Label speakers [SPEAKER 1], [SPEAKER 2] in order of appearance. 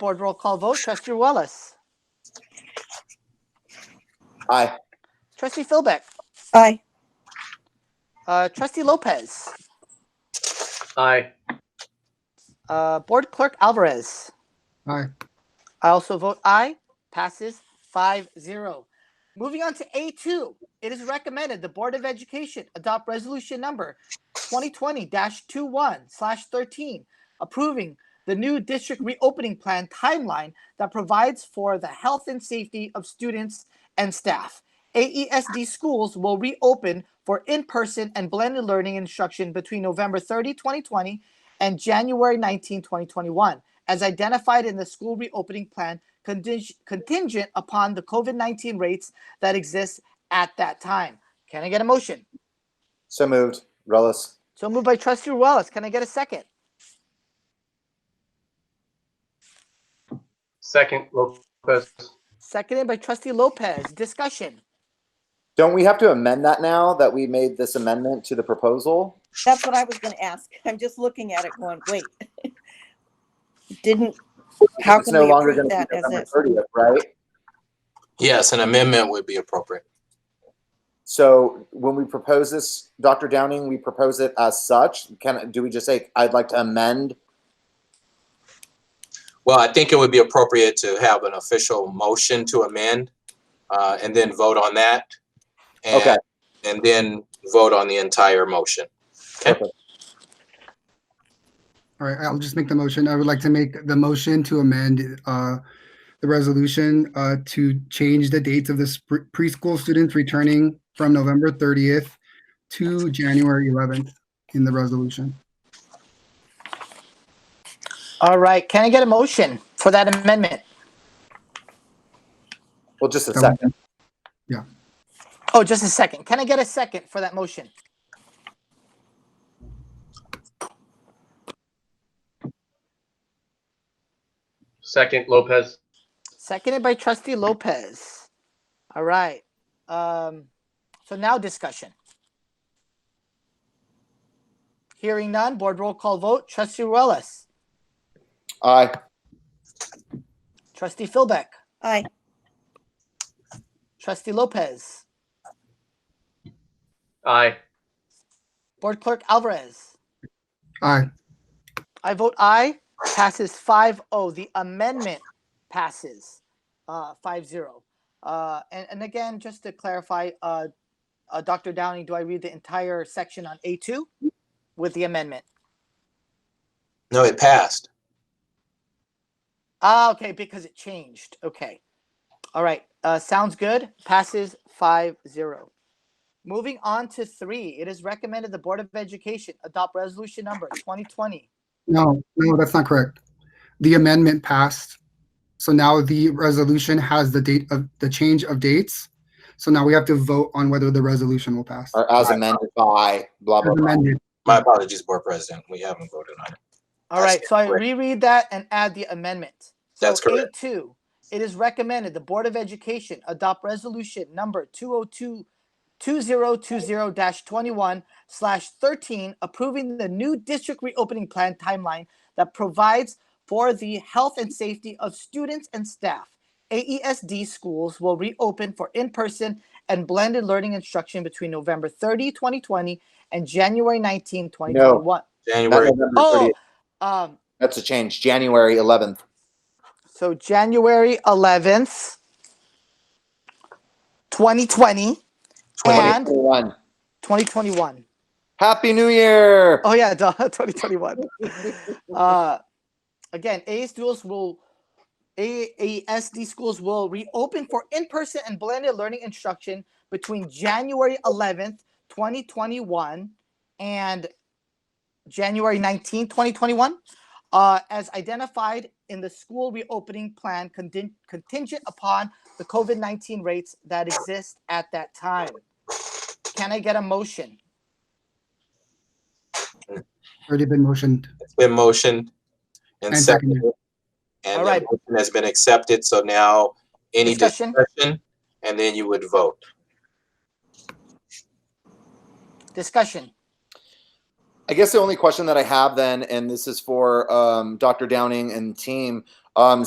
[SPEAKER 1] Board roll call vote. Trustee Wallace.
[SPEAKER 2] Aye.
[SPEAKER 1] Trustee Philbeck.
[SPEAKER 3] Aye.
[SPEAKER 1] Uh, Trustee Lopez.
[SPEAKER 2] Aye.
[SPEAKER 1] Uh, Board Clerk Alvarez.
[SPEAKER 4] Aye.
[SPEAKER 1] I also vote aye. Passes 5-0. Moving on to A2, it is recommended the Board of Education adopt resolution number 2020-21/13, approving the new district reopening plan timeline that provides for the health and safety of students and staff. AESD schools will reopen for in-person and blended learning instruction between November 30, 2020 and January 19, 2021 as identified in the school reopening plan conting- contingent upon the COVID 19 rates that exist at that time. Can I get a motion?
[SPEAKER 2] So moved. Relis.
[SPEAKER 1] So moved by Trustee Wallace. Can I get a second?
[SPEAKER 5] Second, Lopez.
[SPEAKER 1] Seconded by Trustee Lopez. Discussion.
[SPEAKER 2] Don't we have to amend that now that we made this amendment to the proposal?
[SPEAKER 3] That's what I was gonna ask. I'm just looking at it going, wait. Didn't, how
[SPEAKER 2] It's
[SPEAKER 3] can
[SPEAKER 2] no
[SPEAKER 3] we
[SPEAKER 2] longer
[SPEAKER 3] approve
[SPEAKER 2] going to
[SPEAKER 3] that
[SPEAKER 2] be
[SPEAKER 3] as
[SPEAKER 2] November
[SPEAKER 3] it?
[SPEAKER 2] thirtieth, right?
[SPEAKER 6] Yes, an amendment would be appropriate.
[SPEAKER 2] So when we propose this, Dr. Downing, we propose it as such. Can, do we just say, I'd like to amend?
[SPEAKER 6] Well, I think it would be appropriate to have an official motion to amend uh, and then vote on that. and-
[SPEAKER 2] Okay.
[SPEAKER 6] And then vote on the entire motion.
[SPEAKER 4] All right, I'll just make the motion. I would like to make the motion to amend uh, the resolution uh, to change the dates of the spr- preschool students returning from November 30th to January 11th in the resolution.
[SPEAKER 1] All right. Can I get a motion for that amendment?
[SPEAKER 2] Well, just
[SPEAKER 4] Um,
[SPEAKER 2] a second.
[SPEAKER 1] Oh, just a second. Can I get a second for that motion?
[SPEAKER 5] Second, Lopez.
[SPEAKER 1] Seconded by Trustee Lopez. All right. Um, so now discussion. Hearing none, board roll call vote. Trustee Relis.
[SPEAKER 2] Aye.
[SPEAKER 1] Trustee Philbeck.
[SPEAKER 3] Aye.
[SPEAKER 1] Trustee Lopez.
[SPEAKER 5] Aye.
[SPEAKER 1] Board Clerk Alvarez.
[SPEAKER 4] Aye.
[SPEAKER 1] I vote aye. Passes 5-0. The amendment passes uh, 5-0. Uh, and, and again, just to clarify, uh, uh, Dr. Downey, do I read the entire section on A2 with the amendment?
[SPEAKER 6] No, it passed.
[SPEAKER 1] Ah, okay, because it changed. Okay. All right. Uh, sounds good. Passes 5 0. Moving on to three, it is recommended the Board of Education adopt resolution number 2020.
[SPEAKER 4] No, no, that's not correct. The amendment passed. So now the resolution has the date of the change of dates. So now we have to vote on whether the resolution will pass.
[SPEAKER 2] Or as amended by blah, blah,
[SPEAKER 4] As
[SPEAKER 2] blah.
[SPEAKER 4] amended.
[SPEAKER 6] My apologies, Board President. We haven't voted on it.
[SPEAKER 1] All
[SPEAKER 6] That's
[SPEAKER 1] right. So I
[SPEAKER 6] correct.
[SPEAKER 1] reread that and add the amendment. So
[SPEAKER 6] That's correct.
[SPEAKER 1] A2, it is recommended the Board of Education adopt resolution number 202 2020-21 slash 13 approving the new district reopening plan timeline that provides for the health and safety of students and staff. AESD schools will reopen for in-person and blended learning instruction between November 30, 2020 and January 19, 2021.
[SPEAKER 2] Not
[SPEAKER 6] January,
[SPEAKER 2] November
[SPEAKER 1] Oh,
[SPEAKER 2] 30th.
[SPEAKER 1] um,
[SPEAKER 2] That's a change. January eleventh.
[SPEAKER 1] So January eleventh, twenty twenty and
[SPEAKER 2] One.
[SPEAKER 1] twenty twenty one.
[SPEAKER 2] Happy New Year.
[SPEAKER 1] Oh yeah, twenty twenty one. Uh, again, AA schools will AASD schools will reopen for in person and blended learning instruction between January eleventh, twenty twenty one, and January 19, 2021, uh, as identified in the school reopening plan contin- contingent upon the COVID 19 rates that exist at that time. Can I get a motion?
[SPEAKER 4] Already been motioned.
[SPEAKER 6] it's been motioned and
[SPEAKER 4] And seconded.
[SPEAKER 6] seconded. And
[SPEAKER 1] All
[SPEAKER 6] the
[SPEAKER 1] right.
[SPEAKER 6] motion has been accepted. So now any
[SPEAKER 1] Discussion?
[SPEAKER 6] discussion, and then you would vote.
[SPEAKER 1] Discussion.
[SPEAKER 2] I guess the only question that I have then, and this is for um, Dr. Downing and team, um,